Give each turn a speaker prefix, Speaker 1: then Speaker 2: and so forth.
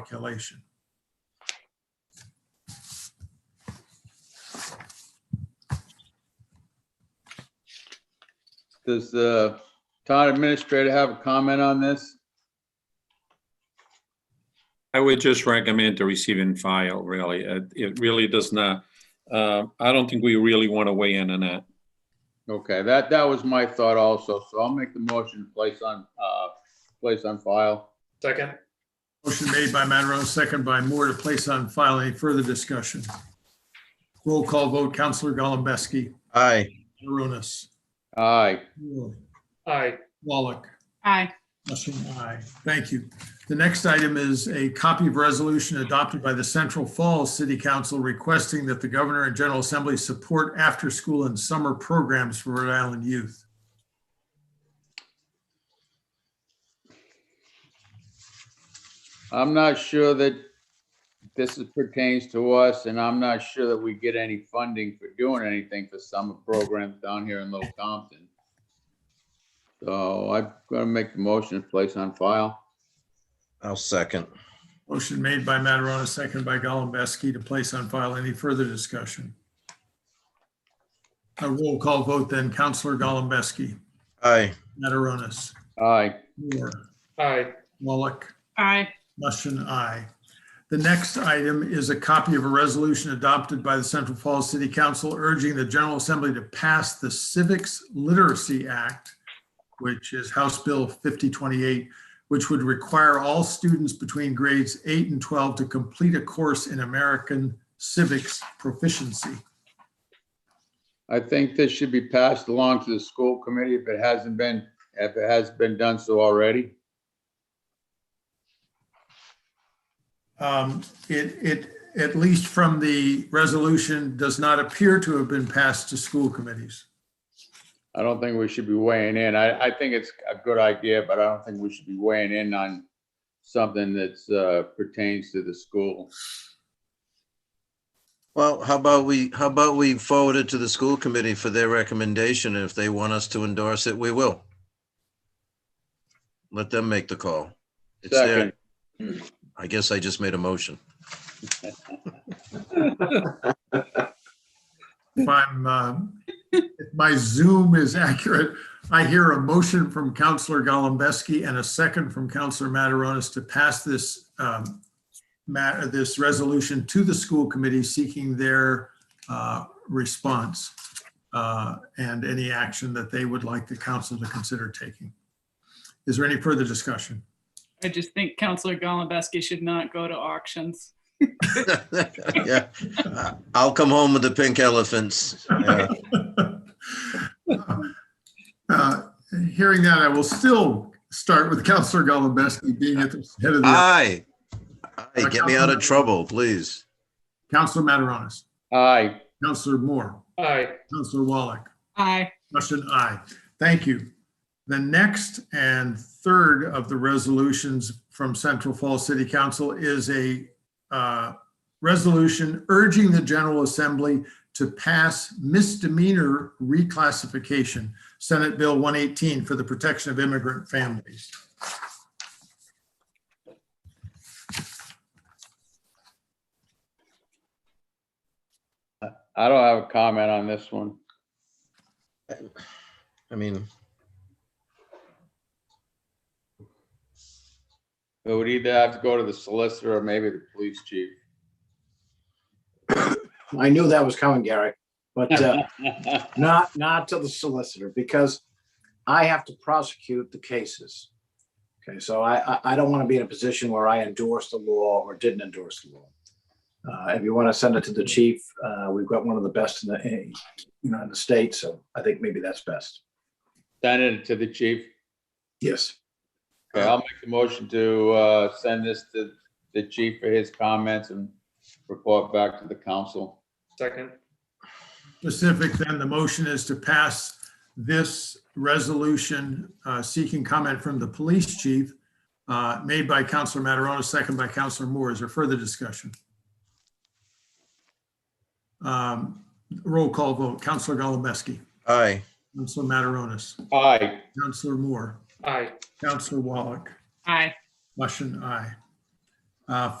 Speaker 1: calculation.
Speaker 2: Does the town administrator have a comment on this?
Speaker 3: I would just recommend to receive and file, really. Uh, It really does not, uh, I don't think we really want to weigh in on that.
Speaker 2: Okay, that, that was my thought also, so I'll make the motion to place on, uh, place on file.
Speaker 4: Second,
Speaker 1: Motion made by Monroe, second by Moore to place on file. Any further discussion? Roll call vote, Counselor Golembeski,
Speaker 5: aye,
Speaker 1: Arunas,
Speaker 2: Aye,
Speaker 4: aye,
Speaker 1: Wallach,
Speaker 6: Aye.
Speaker 1: Mushing, aye. Thank you. The next item is a copy of resolution adopted by the Central Falls City Council requesting that the Governor and General Assembly support after-school and summer programs for Rhode Island youth.
Speaker 2: I'm not sure that this is- pertains to us, and I'm not sure that we get any funding for doing anything for summer programs down here in Little Compton. So I'm gonna make the motion to place on file.
Speaker 5: I'll second.
Speaker 1: Motion made by Mataronis, second by Golembeski to place on file. Any further discussion? A roll call vote then. Counselor Golembeski,
Speaker 5: Aye,
Speaker 1: Mataronis,
Speaker 2: Aye,
Speaker 1: Moore,
Speaker 4: aye,
Speaker 1: Wallach,
Speaker 6: Aye.
Speaker 1: Mushin, aye. The next item is a copy of a resolution adopted by the Central Falls City Council urging the General Assembly to pass the Civics Literacy Act, which is House Bill 5028, which would require all students between grades 8 and 12 to complete a course in American civics proficiency.
Speaker 2: I think this should be passed along to the school committee if it hasn't been, if it has been done so already.
Speaker 1: Um, It, it, at least from the resolution, does not appear to have been passed to school committees.
Speaker 2: I don't think we should be weighing in. I, I think it's a good idea, but I don't think we should be weighing in on something that's, uh, pertains to the school.
Speaker 5: well, how about we, how about we forward it to the school committee for their recommendation, and if they want us to endorse it, we will. Let them make the call. It's
Speaker 2: Second,
Speaker 5: there, I guess I just made a motion.
Speaker 1: if I'm, um, if my Zoom is accurate, I hear a motion from Counselor Golembeski and a second from Counselor Mataronis to pass this, um, ma- this resolution to the school committee seeking their, uh, response, uh, and any action that they would like the council to consider taking. Is there any further discussion?
Speaker 6: I just think Counselor Golembeski should not go to auctions.
Speaker 5: Yeah, Uh, I'll come home with the pink elephants. Yeah.
Speaker 1: Uh, Hearing that, I will still start with Counselor Golembeski being at the head of the,
Speaker 5: Aye, Aye, get me out of trouble, please.
Speaker 1: Counselor Mataronis.
Speaker 2: aye,
Speaker 1: Counselor Moore,
Speaker 4: aye,
Speaker 1: Counselor Wallach,
Speaker 6: Aye.
Speaker 1: Russian aye. Thank you. The next and third of the resolutions from Central Falls City Council is a uh, resolution urging the General Assembly to pass misdemeanor reclassification, Senate Bill 118 for the protection of immigrant families.
Speaker 2: I don't have a comment on this one.
Speaker 5: I mean,
Speaker 2: It would either have to go to the solicitor or maybe the police chief.
Speaker 7: I knew that was coming, Gary, but uh, not, not to the solicitor because I have to prosecute the cases. Okay, so I, I, I don't want to be in a position where I endorse the law or didn't endorse the law. Uh, If you want to send it to the chief, uh, we've got one of the best in the, in, you know, in the state, so I think maybe that's best.
Speaker 2: Send it to the chief.
Speaker 7: Yes.
Speaker 2: Okay, I'll make the motion to, uh, send this to the chief for his comments and report back to the council.
Speaker 4: second,
Speaker 1: specific, then the motion is to pass this resolution uh, seeking comment from the police chief, uh, made by Counselor Mataronis, second by Counselor Moore. Is there further discussion? Um, Roll call vote. Counselor Golembeski,
Speaker 5: aye,
Speaker 1: Counselor Mataronis,
Speaker 2: Aye,
Speaker 1: Counselor Moore,
Speaker 4: aye,
Speaker 1: Counselor Wallach,
Speaker 6: Aye.
Speaker 1: Mushin, aye. uh,